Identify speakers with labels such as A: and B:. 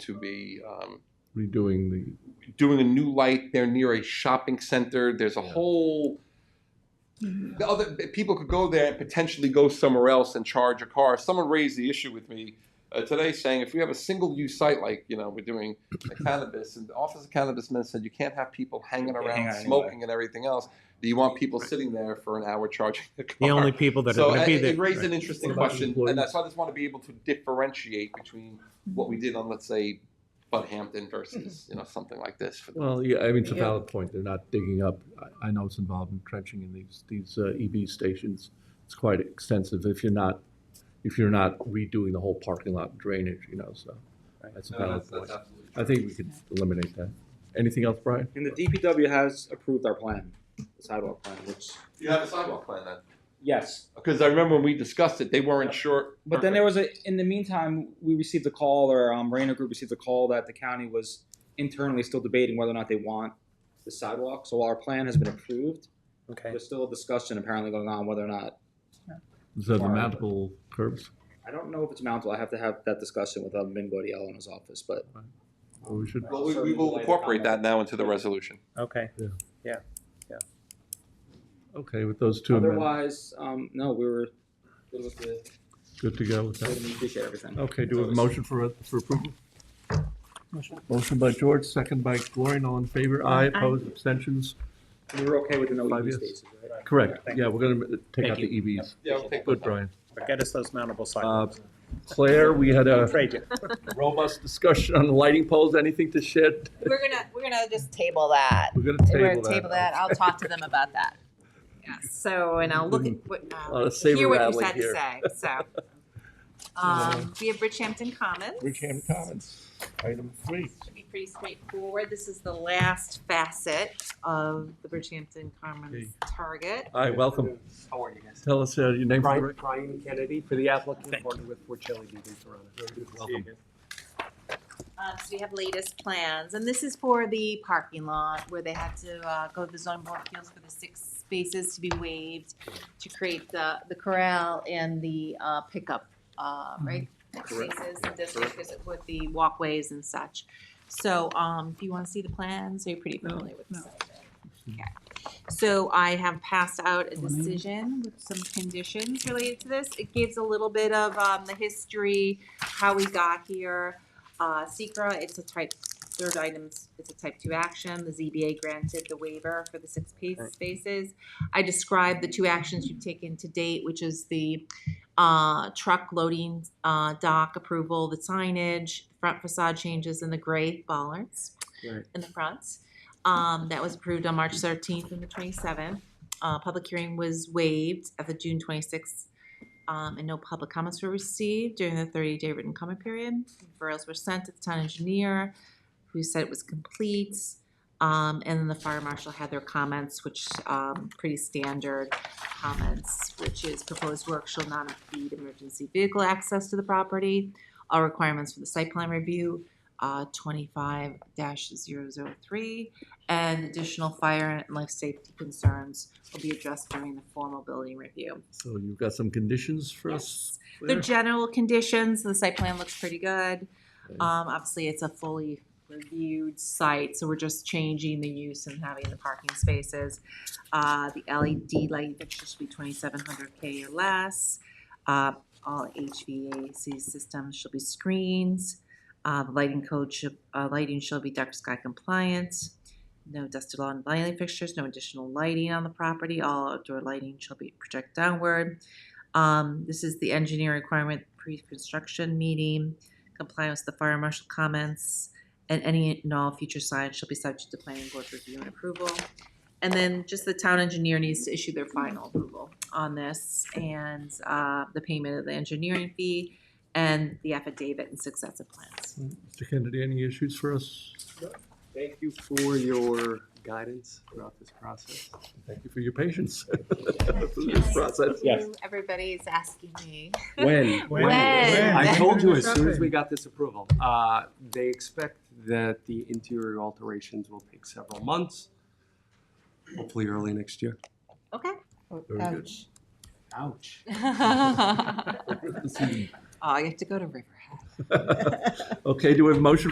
A: to be um,
B: redoing the,
A: doing a new light there near a shopping center. There's a
B: Yeah.
A: whole the other people could go there and potentially go somewhere else and charge a car. Someone raised the issue with me uh, today, saying if we have a single-use site like you know we're doing the cannabis, and the Office of Cannabis Men said you can't have people hanging
C: Hang
A: around
C: out anyway.
A: smoking and everything else. Do you want people sitting there for an hour charging the car?
D: The only people that are
A: so
D: going to
A: it,
D: be
A: it
D: there.
A: raised an interesting
B: What about
A: question,
B: employees?
A: and that's why I just want to be able to differentiate between what we did on, let's say, Bud Hampton versus you know something like this. For the,
B: well, yeah, I mean, it's a
E: Yeah.
B: valid point. They're not digging up. I, I know it's involved in trenching in these, these uh, EV stations. It's quite extensive if you're not, if you're not redoing the whole parking lot drainage, you know, so that's a valid point.
A: absolutely
B: I think we could eliminate that. Anything else, Brian?
C: And the DPW has approved our plan, the sidewalk plan, which,
A: you have a sidewalk plan then.
C: yes.
A: Because I remember when we discussed it, they weren't
C: Yeah.
A: sure.
C: But then there was a, in the meantime, we received a call, or um, Rainer Group received a call that the county was internally still debating whether or not they want the sidewalk. So while our plan has been approved,
D: Okay.
C: there's still a discussion apparently going on whether or not,
B: So the
C: Far.
B: mountable curbs,
C: I don't know if it's mountable, I have to have that discussion with um, Vin Gaudiel in his office, but
B: or we should,
A: Well, we, we will incorporate that now into the resolution.
D: Okay.
B: okay, with those two amendments,
C: otherwise, um, no, we were, good with the-
B: good to go with that.
C: we appreciate everything.
B: Okay, Oh. do we have a motion for, for approval? Motion by George, second by Gloria, all in favor, aye, opposed, abstentions?
C: We were okay with the no
B: Five
C: EV
B: years.
C: spaces, right?
B: Correct,
D: Thank
B: yeah, we're gonna uh, take
D: Thank
B: out the EVs.
A: Yeah, we'll take
B: Good, Brian.
D: Get us those mountable
B: Uh,
D: sidewalks.
B: Claire, we had a
D: Trade you.
B: robust discussion on the lighting poles, anything to shed?
E: We're gonna, we're gonna just table that.
B: We're gonna
E: We're
B: table
E: gonna
B: that.
E: table that. I'll talk to them about that. Yes, so, and I'll look at what,
B: A lot
E: um,
B: of saber
E: hear what you
B: rattling
E: had to
B: here.
E: say, so. Um, we have Bridgehampton Commons.
F: Bridgehampton Commons, item three.
E: Should be pretty straightforward. This is the last facet of the Bridgehampton Commons target.
B: Hi, welcome,
G: How are you guys?
B: tell us uh, your name for the
G: Brian,
B: record.
G: Brian Kennedy for the applicant, partner with Porcelli DB Toronto.
B: Welcome.
E: Uh, so we have latest plans, and this is for the parking lot where they had to, uh, go to the zoning board of appeals for the six spaces to be waived to create the, the corral and the, uh, pickup, uh, right?
C: Correct.
E: Spaces and districts with the walkways and such. So, um, if you wanna see the plans, you're pretty familiar with this. Okay. So I have passed out a decision with some conditions related to this. It gives a little bit of, um, the history, how we got here. Uh, secra, it's a type, third item, it's a type two action. The ZBA granted the waiver for the six pa- spaces. I described the two actions you've taken to date, which is the, uh, truck loading, uh, dock approval, the signage, front facade changes and the gray bollards
C: Right.
E: in the front. Um, that was approved on March thirteenth and the twenty-seventh. Uh, public hearing was waived at the June twenty-sixth um, and no public comments were received during the thirty-day written comment period. Referrals were sent to the town engineer, who said it was complete. Um, and then the fire marshal had their comments, which, um, pretty standard comments, which is proposed work shall not impede emergency vehicle access to the property. All requirements for the site plan review, uh, twenty-five 3 and additional fire and life safety concerns will be addressed during the formal building review.
B: So you've got some conditions for us?
E: The
B: Claire?
E: general conditions, the site plan looks pretty good.
B: Okay.
E: Um, obviously, it's a fully reviewed site, so we're just changing the use and having the parking spaces. Uh, the LED light fixtures should be twenty-seven hundred K or less. Uh, all HVAC systems shall be screens. Uh, the lighting code should, uh, lighting shall be dark sky compliant. No dusted lawn lighting fixtures, no additional lighting on the property. All outdoor lighting shall be project downward. Um, this is the engineer requirement pre-construction meeting, compliance with the fire marshal comments, and any and all future signs shall be subject to planning board review and approval. And then just the town engineer needs to issue their final approval on this and, uh, the payment of the engineering fee and the affidavit and successive plans.
B: Mr. Kennedy, any issues for us?
G: Thank you for your guidance throughout this process.
B: Thank you for your patience through this process.
C: Yes.
E: Everybody's asking me.
G: When?
D: When?
E: When?
G: I told you as soon as we got this approval. Uh, They expect that the interior alterations will take several months, hopefully early next year.
E: Okay.
B: Very good.
G: Ouch.
E: Oh, I have to go to Riverhead.
B: Okay, do we have a motion